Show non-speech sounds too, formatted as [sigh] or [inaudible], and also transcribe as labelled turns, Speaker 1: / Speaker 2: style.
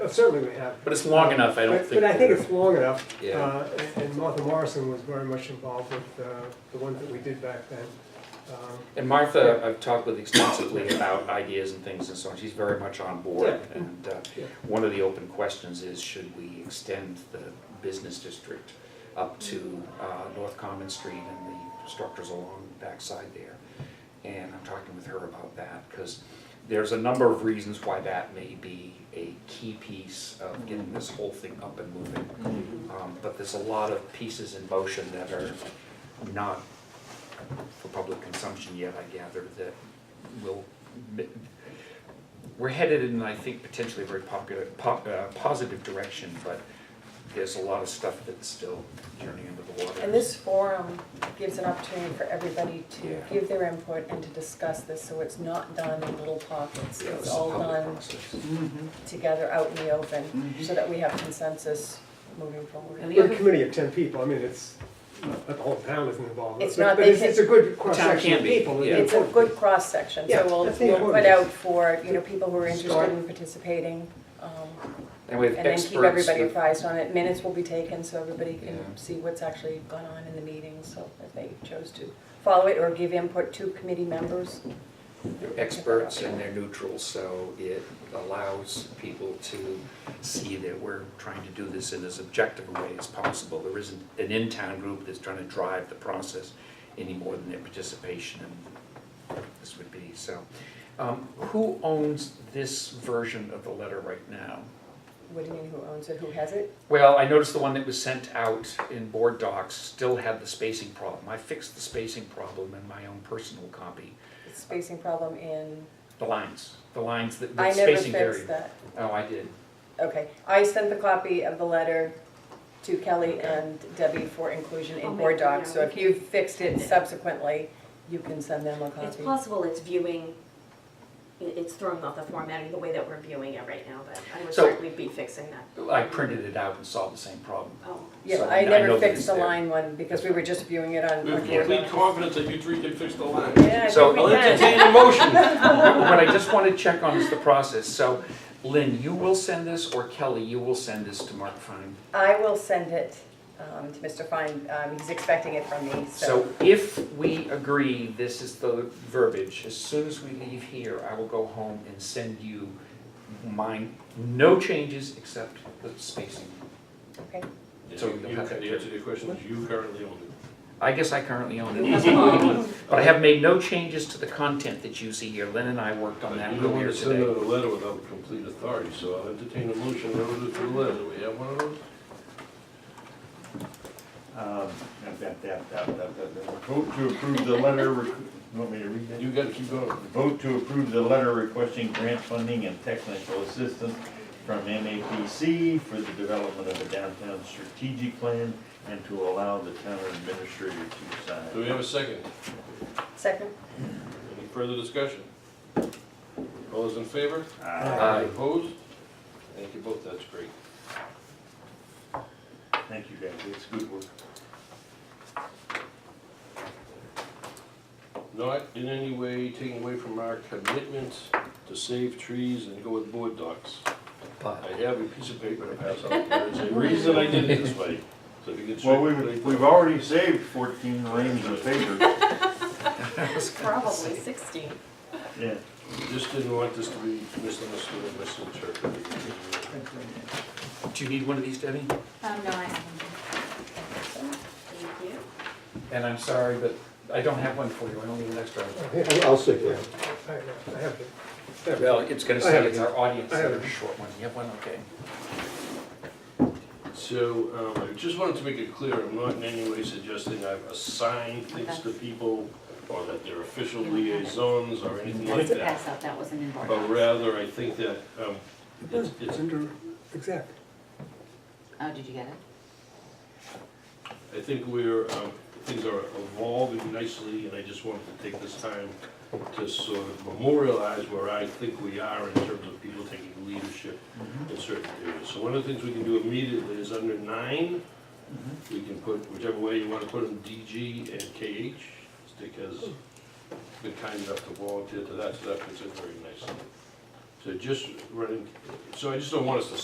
Speaker 1: Oh, certainly we have.
Speaker 2: But it's long
Speaker 1: Um,
Speaker 2: enough, I don't
Speaker 1: but-
Speaker 2: think
Speaker 1: But I think
Speaker 2: we're-
Speaker 1: it's long enough.
Speaker 3: Yeah.
Speaker 1: Uh, and- And Martha Morrison was very much involved with uh, the ones that we did back then. Um,
Speaker 2: And Martha, I've talked with extensively about ideas and things and so on, she's very much on board.
Speaker 1: Yeah.
Speaker 2: And uh,
Speaker 1: Yeah.
Speaker 2: one of the open questions is, should we extend the business district up to uh, North Common Street and the structures along the backside there? And I'm talking with her about that, because there's a number of reasons why that may be a key piece of getting this whole thing up and moving.
Speaker 1: Mm-hmm.
Speaker 2: Um, But there's a lot of pieces in motion that are not for public consumption yet, I gather, that will, we're headed in, I think, potentially a very popular, po- uh, positive direction, but there's a lot of stuff that's still journeying under the water.
Speaker 4: And this forum gives an opportunity for everybody
Speaker 2: Yeah.
Speaker 4: to give their input and to discuss this, so it's not done in little pockets.
Speaker 2: Yeah, this
Speaker 4: It's
Speaker 2: is a
Speaker 4: all
Speaker 2: public Mm-hmm.
Speaker 4: done
Speaker 2: process.
Speaker 4: together out in the open, so that we have consensus moving forward.
Speaker 5: And the
Speaker 1: We're a
Speaker 5: other-
Speaker 1: committee of ten people, I mean, it's, not that the whole town isn't involved.
Speaker 4: It's
Speaker 1: but-
Speaker 4: not-
Speaker 1: But
Speaker 4: they
Speaker 1: it's,
Speaker 4: can-
Speaker 1: it's a good
Speaker 2: Town
Speaker 1: cross-section
Speaker 2: can
Speaker 1: of
Speaker 2: be,
Speaker 1: people.
Speaker 2: yeah.
Speaker 4: It's a good cross-section,
Speaker 1: Yeah,
Speaker 4: so we'll,
Speaker 1: that's the
Speaker 4: we'll
Speaker 1: important
Speaker 4: put
Speaker 1: piece.
Speaker 4: out for, you know, people who are
Speaker 1: Start.
Speaker 4: interested in participating, um,
Speaker 2: And we have
Speaker 4: and then
Speaker 2: experts.
Speaker 4: keep everybody
Speaker 2: that-
Speaker 4: apprised on it. Minutes will be taken, so everybody can
Speaker 2: Yeah.
Speaker 4: see what's actually gone on in the meeting, so if they chose to follow it or give input to committee members.
Speaker 2: They're experts and they're neutral, so it allows people to see that we're trying to do this in as objective a way as possible. There isn't an in-town group that's trying to drive the process any more than their participation in this would be, so. Um, Who owns this version of the letter right now?
Speaker 4: What do you mean, who owns it, who has it?
Speaker 2: Well, I noticed the one that was sent out in board docs still had the spacing problem. I fixed the spacing problem in my own personal copy.
Speaker 4: It's Spacing problem in,
Speaker 2: The lines, the lines, that
Speaker 4: I
Speaker 2: the
Speaker 4: never
Speaker 2: spacing variable.
Speaker 4: fixed that.
Speaker 2: Oh, I did.
Speaker 4: Okay, I sent the copy of the letter to Kelly
Speaker 2: Okay.
Speaker 4: and Debbie for inclusion
Speaker 5: I'll
Speaker 4: in
Speaker 5: make
Speaker 4: board
Speaker 5: them
Speaker 4: docs,
Speaker 5: now.
Speaker 4: so if
Speaker 5: Okay.
Speaker 4: you've fixed it subsequently, you can send them a
Speaker 5: It's
Speaker 4: copy.
Speaker 5: possible it's viewing, it- it's throwing off the formatting, the way that we're viewing it right now, but I would
Speaker 2: So-
Speaker 5: certainly be fixing that.
Speaker 2: I printed it out and solved the same problem.
Speaker 5: Oh,
Speaker 4: Yeah,
Speaker 2: So
Speaker 4: I
Speaker 2: know
Speaker 4: never
Speaker 2: that
Speaker 4: fixed
Speaker 2: it's
Speaker 4: the
Speaker 2: there.
Speaker 4: line one, because we were just viewing it on.
Speaker 6: We
Speaker 4: on
Speaker 6: have
Speaker 4: board
Speaker 6: complete
Speaker 4: docs.
Speaker 6: confidence that you three can fix the line.
Speaker 4: Yeah, I
Speaker 2: So-
Speaker 4: think
Speaker 6: I'll
Speaker 4: we can.
Speaker 6: entertain
Speaker 4: [laughs]
Speaker 6: a motion.
Speaker 2: What I just want to check on is the process. So Lynn, you will send this, or Kelly, you will send this to Mark Fine.
Speaker 4: I will send it um, to Mr. Fine, um, he's expecting it from me, so.
Speaker 2: So if we agree, this is the verbiage, as soon as we leave here, I will go home and send you mine, no changes except the spacing.
Speaker 4: Okay.
Speaker 2: So
Speaker 6: You-
Speaker 2: you'll
Speaker 6: you-
Speaker 2: have that
Speaker 6: The answer to your question is you currently own it.
Speaker 2: I guess I currently own it. But I have made no changes to the content that you see here. Lynn and I worked on that
Speaker 6: But You don't want
Speaker 2: earlier
Speaker 6: to send
Speaker 2: today.
Speaker 6: out a letter without complete authority, so I'll entertain a motion relative to the letter. Do we have one of those?
Speaker 7: Um, that- that- that- that- that- that- that- Vote to approve the letter, requ- you want me to read that?
Speaker 6: You gotta keep going.
Speaker 7: Vote to approve the letter requesting grant funding and technical assistance from MAPC for the development of a downtown strategic plan and to allow the town administrator to
Speaker 6: Do we
Speaker 7: sign.
Speaker 6: have a second?
Speaker 4: Second?
Speaker 6: Any further discussion? All those in favor?
Speaker 7: Ah,
Speaker 2: Aye.
Speaker 6: Opposed? Thank you both, that's great.
Speaker 7: Thank you guys, it's good work.
Speaker 6: Not in any way taking away from our commitment to save trees and go with board docs.
Speaker 2: But
Speaker 6: I have a piece of paper to pass out. There's a reason I did it this way, so if you could.
Speaker 7: Well, we've, we've already saved fourteen reams of paper,
Speaker 5: probably sixteen.
Speaker 7: yeah.
Speaker 6: Just didn't want this to be misunderstood and misinterpreted.
Speaker 2: do you need one of these, Debbie?
Speaker 5: Um, no, I haven't. Thank you.
Speaker 2: And I'm sorry, but I don't have one for you, I only have an extra.
Speaker 1: I'll see. I I have it. I have it.
Speaker 2: Well, it's gonna
Speaker 1: I
Speaker 2: say
Speaker 1: have
Speaker 2: it's
Speaker 1: it.
Speaker 2: our audience,
Speaker 1: I have
Speaker 2: it's
Speaker 1: it.
Speaker 2: a short one, you have one, okay.
Speaker 6: So, um, I just wanted to make it clear, I'm not in any way suggesting I've assigned things to people or that they're official liaisons or anything like that.
Speaker 5: out, that wasn't in
Speaker 6: But rather, I think that, um, it's,
Speaker 1: It's
Speaker 6: it's,
Speaker 1: under, exactly.
Speaker 5: Oh, did you get it?
Speaker 6: I think we're, um, things are evolving nicely and I just wanted to take this time to sort of memorialize where I think we are in terms of people taking leadership
Speaker 7: Mm-hmm.
Speaker 6: in certain areas. So one of the things we can do immediately is under nine,
Speaker 7: Mm-hmm.
Speaker 6: we can put whichever way you want to put them, DG and KH. Dick has been kind enough to volunteer to that, so that fits in very nicely. So just running, so I just don't want us to